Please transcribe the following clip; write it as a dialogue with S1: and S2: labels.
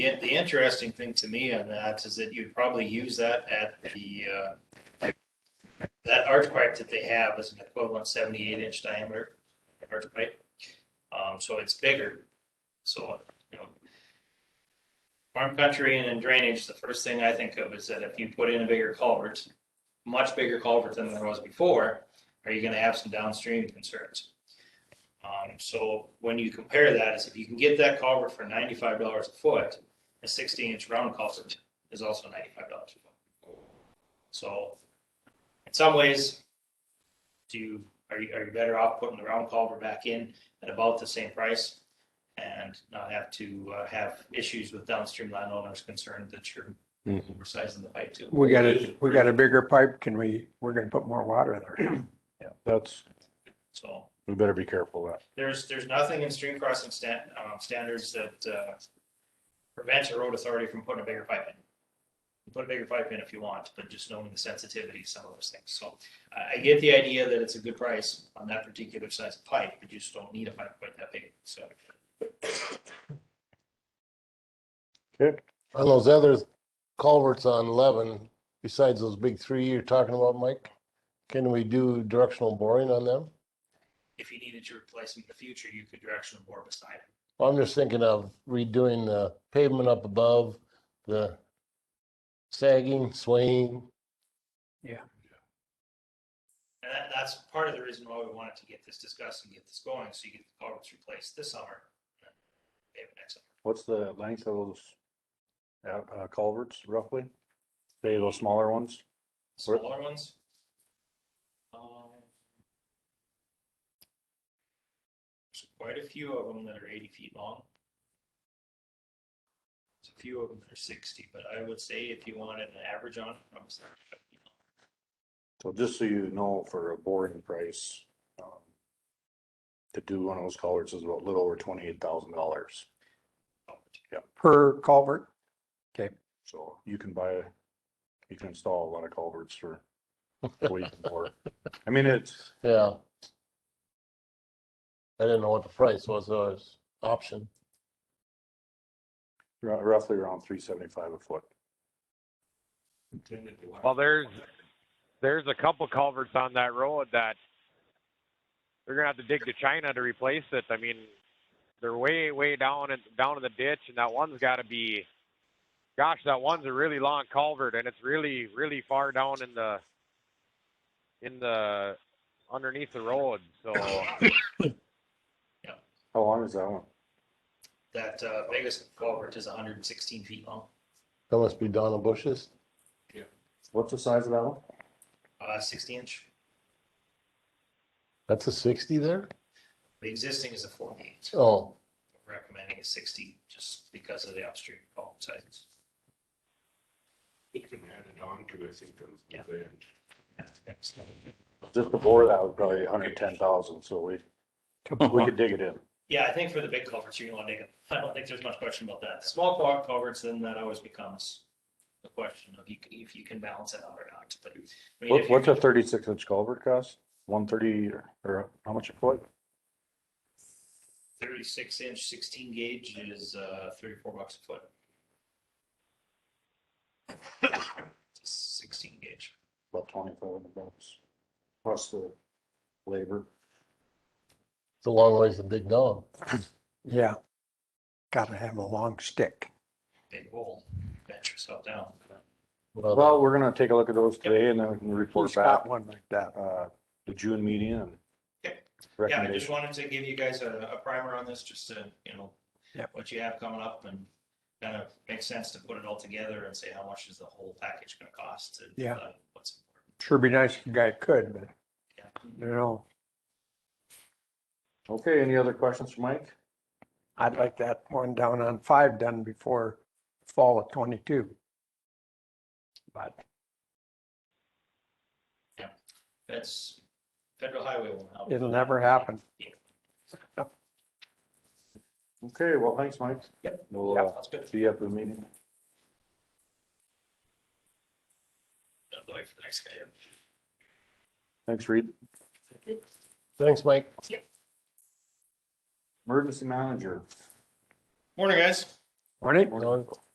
S1: Yeah, the interesting thing to me on that is that you'd probably use that at the, uh, that arch pipe that they have is an equivalent seventy-eight inch diameter arch pipe. Um, so it's bigger, so, you know. Farm country and in drainage, the first thing I think of is that if you put in a bigger culvert, much bigger culvert than there was before, are you gonna have some downstream concerns? Um, so when you compare that, is if you can get that culvert for ninety-five dollars a foot, a sixteen inch round culvert is also ninety-five dollars a foot. So in some ways, do you, are you, are you better off putting the round culvert back in at about the same price? And not have to uh, have issues with downstream landowners concerned that you're
S2: Mhm.
S1: oversizing the pipe too.
S3: Mm-hmm. We got a, we got a bigger pipe, can we, we're gonna put more water there.
S2: That's,
S1: So.
S2: we better be careful of
S1: There's, there's nothing in stream crossing stan- um, standards that, uh, prevents a road authority from putting a bigger pipe in. You Put a bigger pipe in if you want, but just knowing the sensitivity, of some of those things. So I, I get the idea that it's a good price on that particular size of pipe, but you just don't need a pipe quite that big, so.
S4: On those other culverts on eleven, besides those big three you're talking about, Mike, can we do directional boring on them?
S1: If you needed to replace them in the future, you could directional bore beside it.
S4: Well, I'm just thinking of redoing the pavement up above, the sagging, swaying.
S1: And that, that's part of the reason why we wanted to get this discussed and get this going, so you get the culverts replaced this summer. and then Maybe next summer.
S2: What's the length of those uh, uh, culverts roughly? Say those smaller ones? Where-
S1: Smaller ones? Um, There's quite a few of them that are eighty feet long. There's a few of them that are sixty, but I would say if you wanted an average on, it, I'm sorry.
S2: So just so you know, for a boring price, um, to do one of those culverts is about a little over twenty-eight thousand dollars.
S3: Per culvert,
S2: So you can buy, you can install a lot of culverts for way more. I mean, it's,
S4: Yeah. I didn't know what the price was, so it's option.
S2: rou- roughly around three seventy-five a foot.
S5: Well, there's, there's a couple culverts on that road that they're gonna have to dig to China to replace it. I mean, they're way, way down and down in the ditch and that one's gotta be, gosh, that one's a really long culvert and it's really, really far down in the, in the, underneath the road. So
S2: How long is that one?
S1: That uh, biggest culvert is hundred and sixteen feet long,
S4: That must be Donna Bush's.
S2: What's the size of that one?
S1: uh, sixty inch.
S4: That's a sixty there?
S1: The existing is a forty-eight,
S4: Oh,
S1: recommending a sixty just because of the upstream fault size.
S6: It can add it on to, I think, those.
S1: Yeah.
S2: Just before that was probably hundred and ten thousand, so we, we could dig it in.
S1: Yeah, I think for the big culverts, you're gonna want to dig it. I don't think there's much question about that. Small cul- culverts, then that always becomes the question of you, if you can balance it out or not, but. I mean, if
S2: What,
S1: you-
S2: what's a thirty-six inch culvert cost? One thirty or how much a foot?
S1: Thirty-six inch, sixteen gauge is, uh, thirty-four bucks a foot. Sixteen gauge.
S2: About twenty-five hundred bucks. Plus the labor.
S4: it's a long ways to dig down.
S3: yeah. Gotta have a long stick.
S1: Big hole, bent yourself down.
S2: Well, we're gonna take a look at those today and then we can report
S3: Who's
S2: back,
S3: got one like that?
S2: uh, the June meeting and.
S1: Yep. Yeah, I just
S2: Recommendation.
S1: wanted to give you guys a, a primer on this, just to, you know,
S3: Yep.
S1: what you have coming up and kind of makes sense to put it all together and say, how much is the whole package gonna cost? and,
S3: Yeah.
S1: uh, What's important.
S3: Sure be nice if the guy could, but you know,
S2: Okay, any other questions for Mike?
S3: I'd like that one down on five done before fall of twenty-two. But
S1: That's federal highway will help.
S3: it'll never happen.
S2: Okay, well, thanks, Mike.
S1: Yep.
S2: We'll,
S1: Yeah,
S2: uh,
S1: That's good.
S2: see you at the meeting.
S1: Don't wait for the next guy.
S2: Thanks, Reed.
S4: Thanks, Mike.
S2: Emergency manager.
S1: Morning, guys.
S3: Morning.
S4: You know,